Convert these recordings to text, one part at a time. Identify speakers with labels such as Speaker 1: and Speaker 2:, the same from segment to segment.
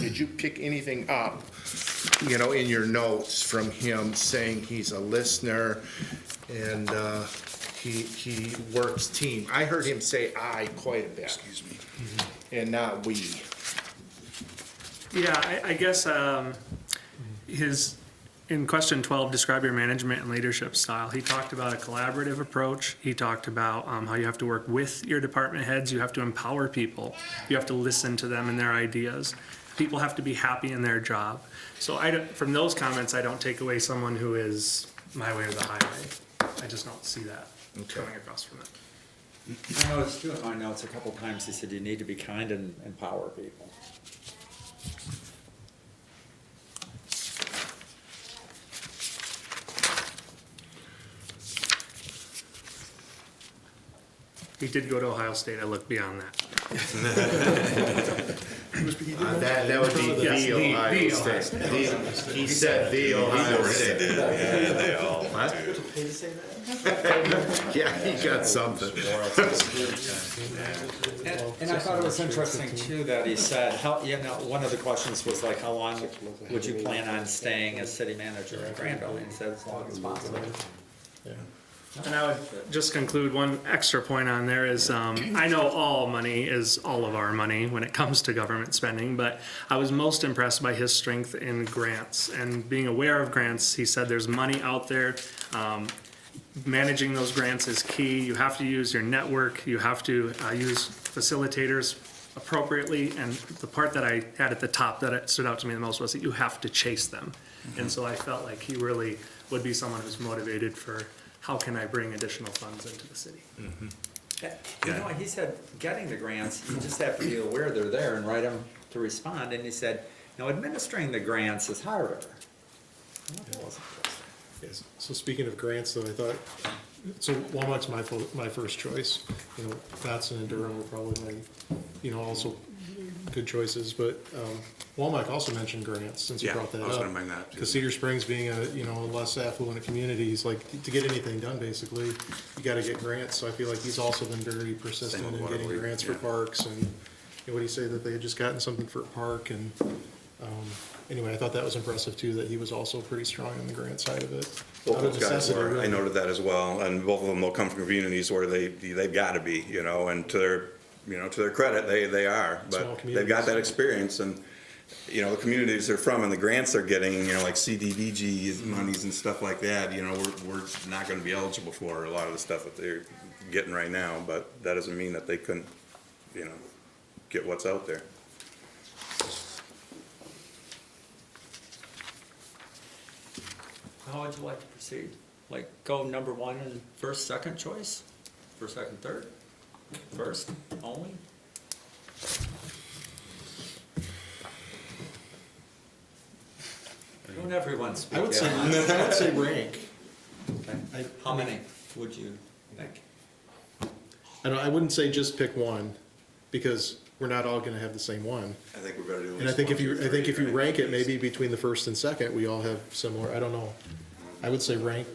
Speaker 1: did you pick anything up, you know, in your notes from him saying he's a listener and uh, he, he works team? I heard him say "I" quite a bit. Excuse me. And not "we."
Speaker 2: Yeah, I, I guess um, his, in question 12, describe your management and leadership style. He talked about a collaborative approach. He talked about um, how you have to work with your department heads. You have to empower people. You have to listen to them and their ideas. People have to be happy in their job. So I, don't- from those comments, I don't take away someone who is my way or the highway. I just don't see that coming across from it.
Speaker 3: I noticed too in my notes a couple times, he said you need to be kind and empower people.
Speaker 2: He did go to Ohio State. I looked beyond that.
Speaker 1: Uh, That, that would be
Speaker 2: Yes,
Speaker 1: the
Speaker 2: the-
Speaker 1: Ohio State.
Speaker 2: the
Speaker 1: The- He said the Ohio State.
Speaker 4: Yeah, they all do.
Speaker 1: Yeah, he got something.
Speaker 3: And and I thought it was interesting too that he said, how, you know, one of the questions was like, how long would you plan on staying as city manager at Granville? And he said, as long as possible.
Speaker 2: And I would just conclude one extra point on there is um, I know all money is all of our money when it comes to government spending, but I was most impressed by his strength in grants and being aware of grants. He said there's money out there. Um, managing those grants is key. You have to use your network, you have to uh, use facilitators appropriately. And the part that I had at the top that it stood out to me the most was that you have to chase them. And so I felt like he really would be someone who's motivated for how can I bring additional funds into the city?
Speaker 3: Eh, You know, he said, getting the grants, you just have to be aware they're there and write them to respond. And he said, now administering the grants is harder. I thought that was interesting.
Speaker 5: Yes. So speaking of grants, though, I thought, so Walmart's my, fo- my first choice. You know, Batson and Durham were probably my, you know, also good choices, but, um, Walmart also mentioned grants, since you
Speaker 4: Yeah,
Speaker 5: brought that
Speaker 4: I
Speaker 5: up.
Speaker 4: was gonna bring that up, too.
Speaker 5: Because Cedar Springs being a, you know, a less affluent community, is like, to get anything done, basically, you gotta get grants, so I feel like he's also been very persistent
Speaker 4: with
Speaker 5: in getting
Speaker 4: Waterbury,
Speaker 5: grants for
Speaker 4: yeah.
Speaker 5: parks, and, what do you say, that they had just gotten something for a park, and, um, anyway, I thought that was impressive, too, that he was also pretty strong on the grant side of it.
Speaker 4: Both
Speaker 5: Out of
Speaker 4: those guys
Speaker 5: necessity,
Speaker 4: were, I
Speaker 5: really.
Speaker 4: noted that as well, and both of them will come from communities where they, they've gotta be, you know, and to their, you know, to their credit, they, they are.
Speaker 5: Small
Speaker 4: But they've got that experience and, you know, the communities they're from and the grants they're getting, you know, like CDBG monies and stuff like that, you know, we're, we're not gonna be eligible for a lot of the stuff that they're getting right now, but that doesn't mean that they couldn't, you know, get what's out there.
Speaker 3: How would you like to proceed? Like, go number one and first, second choice? First, second, third? First, only? Don't everyone speak
Speaker 5: I would say,
Speaker 3: at once.
Speaker 5: I would say rank. I,
Speaker 3: How many would you think?
Speaker 5: I don't, I wouldn't say just pick one, because we're not all gonna have the same one.
Speaker 4: I think we better do.
Speaker 5: And I think if you, I think if you rank it, maybe between the first and second, we all have similar, I don't know. I would say rank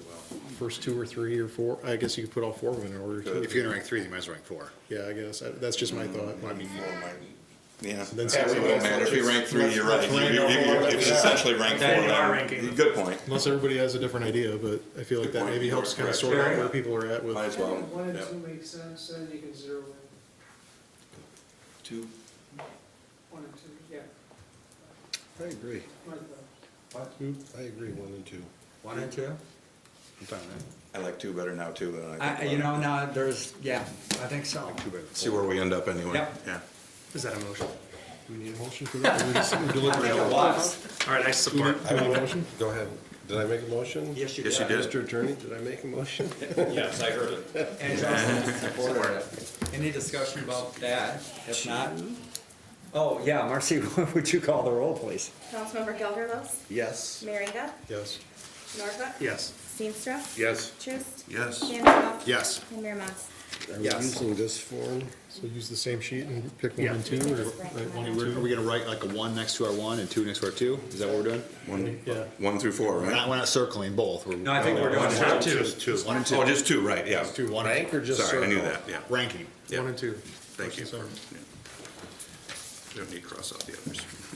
Speaker 5: first two or three or four, I guess you could put all four of them in order too.
Speaker 6: If you're gonna rank three, you might as well rank four. Mm,
Speaker 5: Yeah, I guess, I- that's just my thought.
Speaker 4: Yeah.
Speaker 5: Then
Speaker 1: Yeah,
Speaker 5: six,
Speaker 1: we
Speaker 4: It
Speaker 1: will.
Speaker 4: won't matter if you rank three, you're right.
Speaker 5: Let's
Speaker 4: You-
Speaker 5: rank
Speaker 4: you- you-
Speaker 5: all four.
Speaker 4: If it's essentially rank four,
Speaker 2: Then you are
Speaker 4: then,
Speaker 2: ranking.
Speaker 4: good point.
Speaker 5: Unless everybody has a different idea, but I feel like
Speaker 4: Good
Speaker 5: that
Speaker 4: point.
Speaker 5: maybe helps kind of
Speaker 4: Correct.
Speaker 5: sort out
Speaker 4: Yeah.
Speaker 5: where people are at with.
Speaker 4: Might as well.
Speaker 7: One and
Speaker 4: Yep.
Speaker 7: two make sense, then you can zero in,
Speaker 4: Two.
Speaker 7: one and two, yeah.
Speaker 6: I agree.
Speaker 7: Right there.
Speaker 6: I agree, one and two.
Speaker 3: One or two?
Speaker 6: I'm fine with
Speaker 4: I like two better now too than I
Speaker 3: I,
Speaker 4: did.
Speaker 3: you know, now, there's, yeah, I think so.
Speaker 6: that. Two better.
Speaker 4: See where we end up anyway.
Speaker 3: Yep.
Speaker 4: Yeah.
Speaker 2: Is that a motion?
Speaker 5: Do we need a motion for that? Or we just- we
Speaker 3: I think
Speaker 5: deliberate?
Speaker 3: it was.
Speaker 2: All right, I
Speaker 5: Do we
Speaker 2: support.
Speaker 5: do we need a motion?
Speaker 6: Go ahead. Did I make a motion?
Speaker 3: Yes, you did.
Speaker 4: Yes, you did.
Speaker 6: Mr. Attorney, did I make a motion?
Speaker 3: Yes, I heard it. And Justin supported it. Any discussion about that? If not, oh, yeah, Marcy, what would you call the roll, please?
Speaker 8: Councilmember Gelderlos,
Speaker 6: Yes.
Speaker 8: Merringa,
Speaker 5: Yes.
Speaker 8: Norhuck.
Speaker 2: Yes.
Speaker 8: Steenstra.
Speaker 1: Yes.
Speaker 8: Truist.
Speaker 4: Yes.
Speaker 8: Vanderhoff.
Speaker 1: Yes.
Speaker 8: And Mayor Mas.
Speaker 6: Are we
Speaker 3: Yes.
Speaker 6: using this form?
Speaker 5: So use the same sheet and pick one
Speaker 2: Yeah.
Speaker 5: and two, or
Speaker 8: Just
Speaker 5: right,
Speaker 8: rank
Speaker 5: one
Speaker 8: them.
Speaker 5: and
Speaker 9: Are
Speaker 5: two?
Speaker 9: we gonna write like a one next to our one and two next to our two? Is that what we're doing?
Speaker 4: One,
Speaker 5: Yeah.
Speaker 4: one through four,
Speaker 9: We're
Speaker 4: right?
Speaker 9: not, we're not circling both. We're-
Speaker 3: No, I think we're doing top two.
Speaker 6: two.
Speaker 9: One and two.
Speaker 4: Oh, just two, right, yeah.
Speaker 9: Two, one and-
Speaker 6: Rank or just
Speaker 4: Sorry, I knew
Speaker 6: circle?
Speaker 4: that, yeah.
Speaker 9: Ranking.
Speaker 4: Yeah.
Speaker 5: One and two.
Speaker 4: Thank you.
Speaker 5: Motion
Speaker 4: Yeah. Don't need to cross out the others.